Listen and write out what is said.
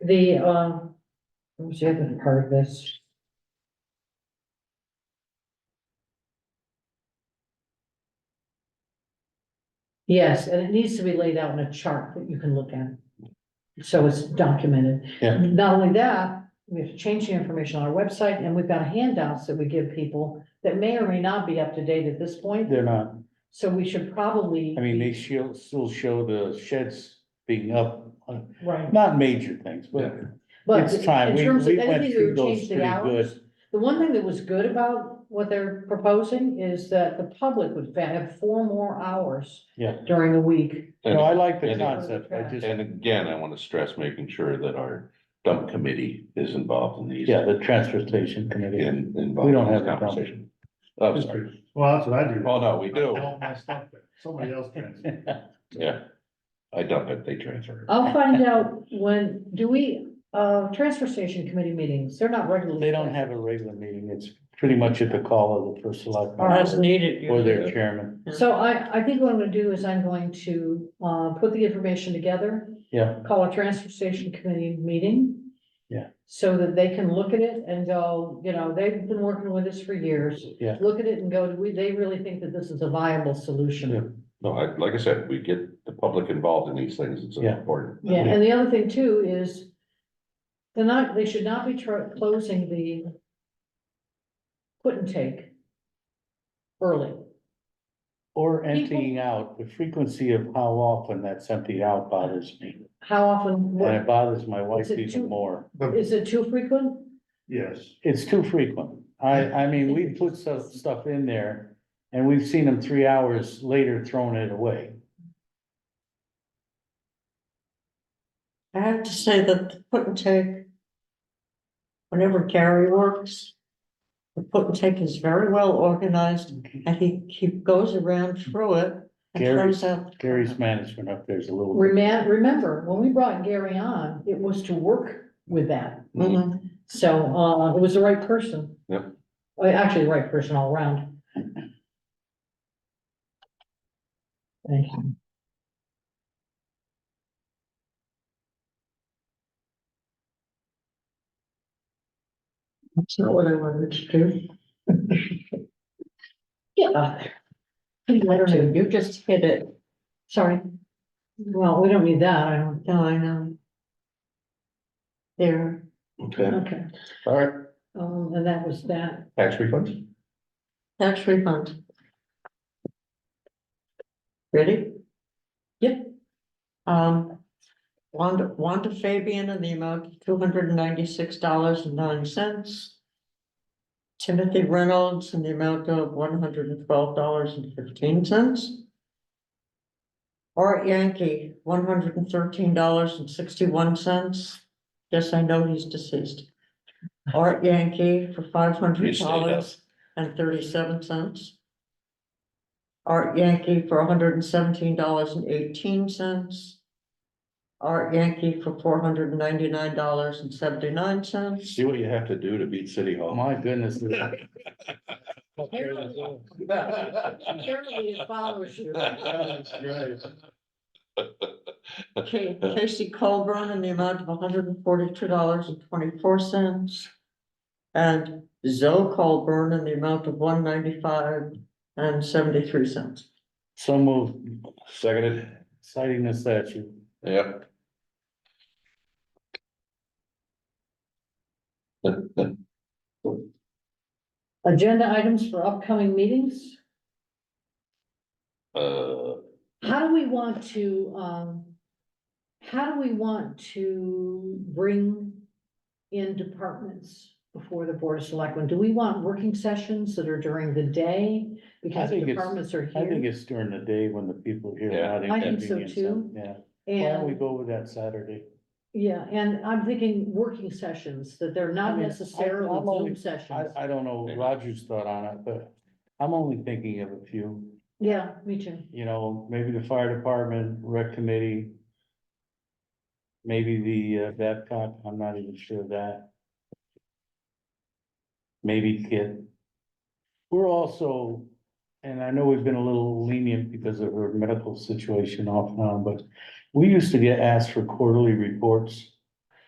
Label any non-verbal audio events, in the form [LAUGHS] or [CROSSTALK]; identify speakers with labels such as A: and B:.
A: The, um, what's the other part of this? Yes, and it needs to be laid out in a chart that you can look at. So it's documented.
B: Yeah.
A: Not only that, we have to change the information on our website and we've got handouts that we give people that may or may not be up to date at this point.
B: They're not,
A: So we should probably.
B: I mean, they still, still show the sheds being up, uh,
A: Right.
B: not major things, but
A: But
B: it's
A: in
B: time. We,
A: terms of
B: we
A: anything
B: went
A: that
B: through
A: would
B: those
A: change
B: pretty
A: the hours,
B: good.
A: the one thing that was good about what they're proposing is that the public would fa- have four more hours
B: Yeah.
A: during the week.
B: No, I like the
C: And-
B: concept, I just,
C: And again, I want to stress making sure that our dump committee is involved in these.
B: yeah, the transfer station committee.
C: In,
B: We
C: involved
B: don't
C: in this
B: have a dump.
C: conversation. Oh, sorry.
D: Well, that's what I do.
C: Oh, no, we do.
D: I dump my stuff there. Somebody else can.
C: Yeah. I dump it, they transfer.
A: I'll find out when, do we, uh, transfer station committee meetings, they're not regularly.
B: [LAUGHS] They don't have a regular meeting, it's pretty much at the call of the first select.
A: All right.
E: As needed.
B: Or their chairman,
A: So I, I think what I'm gonna do is I'm going to, uh, put the information together,
B: yeah,
A: call a transfer station committee meeting.
B: Yeah.
A: So that they can look at it and go, you know, they've been working with us for years.
B: Yeah.
A: Look at it and go, do we, they really think that this is a viable solution.
C: No, I, like I said, we get the public involved in these things, it's
B: Yeah.
C: important.
A: Yeah, and the other thing too is they're not, they should not be tr- closing the put and take early.
B: or emptying out, the frequency of how often that's emptied out bothers me.
A: How often,
B: And it
A: what,
B: bothers my wife
A: Is it too-
B: even more,
A: is it too frequent?
D: Yes,
B: it's too frequent, I, I mean, we put some stuff in there. And we've seen them three hours later throwing it away.
E: I have to say that the put and take. Whenever Gary works. The put and take is very well organized and he, he goes around through it. and
B: Gary-
E: throws out.
B: Gary's management up there is a little.
A: Reman, remember, when we brought Gary on, it was to work with that.
E: Mhm.
A: So, uh, it was the right person.
C: Yep.
A: Well, Actually, the right person all around. Thank you.
E: That's not what I wanted to do.
A: Get out there.
E: I don't know, you just hit it. Sorry,
A: Well, we don't need that, I don't,
E: no, I know. There,
C: Okay,
A: okay,
C: all right,
A: um, and that was that.
C: tax refunds?
E: tax refund. Ready?
A: Yep.
E: Um, Wanda, Wanda Fabian in the amount of two hundred and ninety-six dollars and nine cents. Timothy Reynolds in the amount of one hundred and twelve dollars and fifteen cents. Art Yankee, one hundred and thirteen dollars and sixty-one cents. Yes, I know he's deceased. Art Yankee for five hundred dollars and thirty-seven cents. Art Yankee for hundred and seventeen dollars and eighteen cents. Art Yankee for four hundred and ninety-nine dollars and seventy-nine cents.
C: See what you have to do to beat City
B: Oh,
C: Hall.
B: my
A: [LAUGHS]
B: goodness.
A: Apparently it follows you.
B: [LAUGHS]
E: Ca- Casey Colburn in the amount of hundred and forty-two dollars and twenty-four cents. And Zoe Colburn in the amount of one ninety-five and seventy-three cents.
B: So moved,
C: Seconded,
B: citing the statute.
C: yep. [LAUGHS]
A: Agenda items for upcoming meetings,
C: Uh,
A: how do we want to, um, how do we want to bring in departments before the board of selectmen? Do we want working sessions that are during the day? Because the
B: think it's-
A: departments are
B: I think
A: here.
B: it's during the day when the people here
C: Yeah.
B: are not
A: I think so,
B: inconvenienced,
A: too.
B: yeah. Why don't we
A: And,
B: go with that Saturday?
A: yeah, and I'm thinking working sessions, that they're
B: I
A: not
B: mean, I-
A: necessarily
B: I'm only-
A: Zoom sessions.
B: I, I don't know
C: Yeah.
B: Roger's thought on it, but I'm only thinking of a few,
A: Yeah, me too.
B: you know, maybe the fire department, rec committee. Maybe the uh, Babcock, I'm not even sure of that. Maybe Kit. We're also, and I know we've been a little lenient because of her medical situation off and on, but we used to get asked for quarterly reports.